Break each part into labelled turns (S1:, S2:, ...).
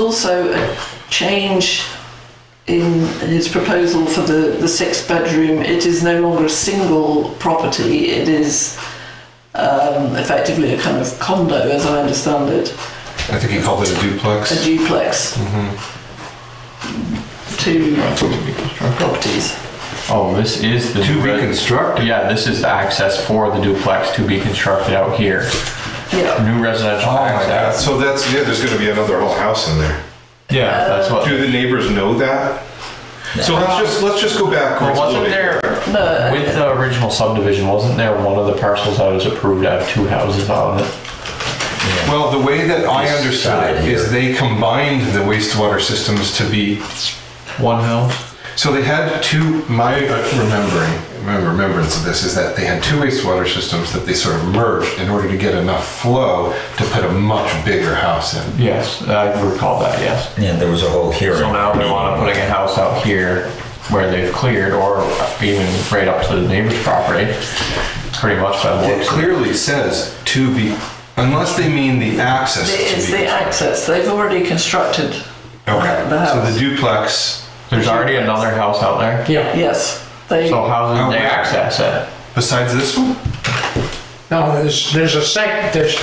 S1: also a change in his proposal for the, the sixth bedroom. It is no longer a single property, it is um, effectively a kind of condo, as I understand it,
S2: I think he called it a duplex.
S1: a duplex.
S3: Mm-hmm.
S1: Two properties.
S3: Oh, this is the
S2: To reconstruct?
S3: Yeah, this is the access for the duplex to be constructed out here.
S1: Yeah.
S3: New residential
S2: Oh my God.
S3: access.
S4: So that's, yeah, there's gonna be another whole house in there.
S3: Yeah, that's what.
S4: Do the neighbors know that? So let's just, let's just go back.
S3: Well,
S4: a little
S3: wasn't
S4: bit.
S3: there
S1: No,
S3: with the original subdivision? Wasn't there one of the parcels that was approved to have two houses on it?
S2: Well, the way that I understood
S5: side
S2: it is they combined the wastewater systems to be,
S3: One house.
S2: so they had two, my uh, remembering, my remembrance of this is that they had two wastewater systems that they sort of merged in order to get enough flow to put a much bigger house in.
S3: Yes, I recall that. Yes.
S5: Yeah, there was a whole hearing.
S3: So now they want to putting a house out here where they've cleared or even right up to the neighbor's property, pretty much by the
S2: It
S3: looks. of it.
S2: clearly says to be, unless they mean the access to be.
S1: it is the access. They've already constructed the
S2: Okay, so
S1: house.
S2: the duplex,
S3: There's already another house out there.
S6: Yeah.
S1: yes. They,
S3: So how
S2: Oh,
S3: do they
S2: yeah.
S3: access it?
S2: besides this one?
S6: No, there's, there's a sec, there's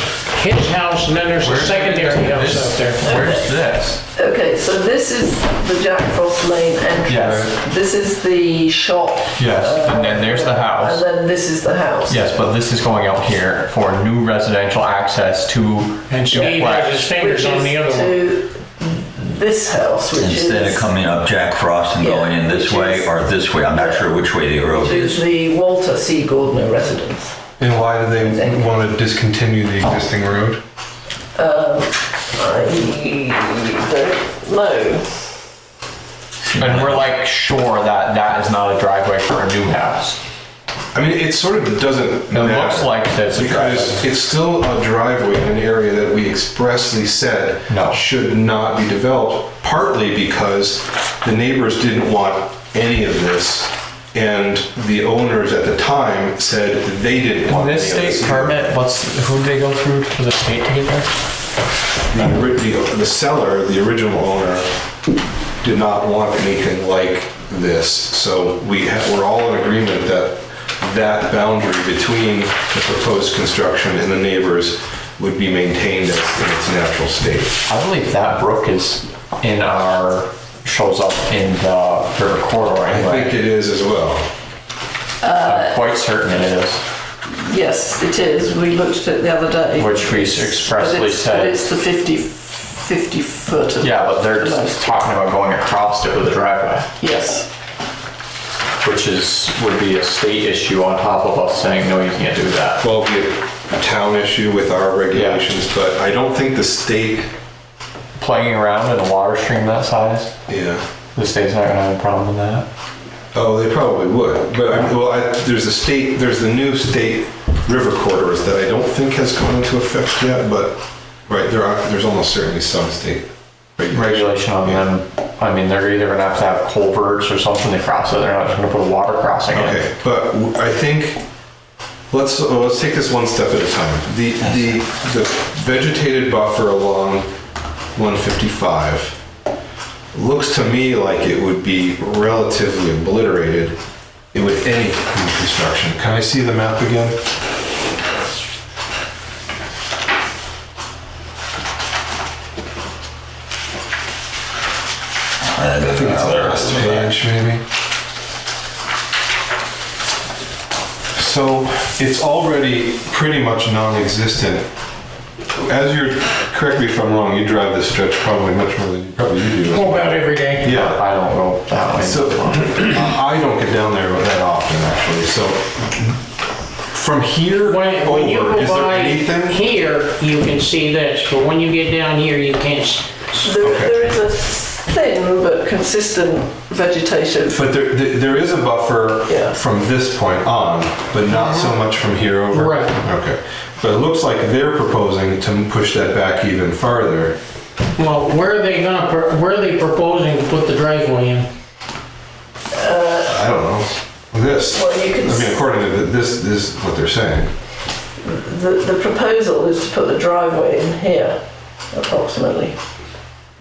S6: his house and then there's a
S3: Where's-
S6: secondary house
S3: this-
S6: out there.
S3: Where's this?
S1: Okay, so this is the Jack Frost Lane entrance.
S3: Yes.
S1: This is the shop. Uh,
S3: Yes, and then there's the house.
S1: And then this is the house.
S3: Yes, but this is going out here for new residential access to.
S6: And Steve has his fingers on the other one.
S1: to this house, which
S5: Instead
S1: is,
S5: of coming up Jack Frost and
S1: Yeah,
S5: going in this
S1: which
S5: way
S1: is-
S5: or this way, I'm not sure which way the road
S1: which is
S5: is.
S1: the Walter C. Gordner residence.
S2: And why do they want to discontinue the existing road?
S1: I don't know.
S3: And we're like sure that that is not a driveway for a new house.
S2: I mean, it sort of doesn't
S3: It
S2: matter.
S3: looks like it's a
S2: Because
S3: driveway.
S2: it's still a driveway in an area that we expressly said
S3: No.
S2: should not be developed, partly because the neighbors didn't want any of this, and the owners at the time said they didn't
S3: On
S2: want
S3: this
S2: any of
S3: state
S2: this.
S3: permit, what's, who do they go through for the state to get there?
S2: The ori- The the seller, the original owner, did not want anything like this, so we ha- we're all in agreement that that boundary between the proposed construction and the neighbors would be maintained as- in its natural state.
S3: I believe that brook is in our, shows up in the river corridor
S2: I think
S3: anyway.
S2: it is as well.
S3: I'm quite certain it is,
S1: Yes, it is. We looked at it the other day.
S3: which we
S1: But
S3: expressly
S1: it's, but
S3: said.
S1: it's the 50, 50 foot. of-
S3: Yeah, but they're just talking about going across it with a driveway,
S1: Yes.
S3: which is, would be a state issue on top of us saying, no, you can't do that.
S2: Well, be a town issue with our regulations, but I don't think the state,
S3: Playing around in a water stream that size,
S2: yeah.
S3: the state's not gonna have a problem with that.
S2: Oh, they probably would, but I, well, I, there's a state, there's the new state river corridors that I don't think has come into effect yet, but, right, there are, there's almost certainly some state.
S3: Regulation on them, I mean, they're either gonna have to have culverts or something to cross it, they're not just gonna put a water crossing in.
S2: Okay, but w- I think, let's, oh, let's take this one step at a time. The, the, the vegetated buffer along 155 looks to me like it would be relatively obliterated with any new construction. Can I see the map again?
S5: I think
S2: It's last page, maybe. So it's already pretty much non-existent. As you're, correct me if I'm wrong, you drive this stretch probably much more than you probably you do.
S6: Go about every day.
S2: Yeah,
S3: I don't go that way.
S2: so I don't get down there that often, actually, so from here
S6: When, when you
S2: over,
S6: go
S2: is there
S6: by
S2: anything?
S6: here, you can see this, but when you get down here, you can't. s-
S1: There,
S2: Okay.
S1: there is a thin but consistent vegetation.
S2: But there, there there is a
S1: Yeah.
S2: buffer from this point on, but not so much from here over.
S6: Right.
S2: Okay, but it looks like they're proposing to push that back even farther.
S6: Well, where are they gonna, pr- where are they proposing to put the driveway in?
S2: I don't know, this.
S1: Well, you
S2: I
S1: can s-
S2: mean, according to th- this, this is what they're saying.
S1: The, the proposal is to put the driveway in here, approximately.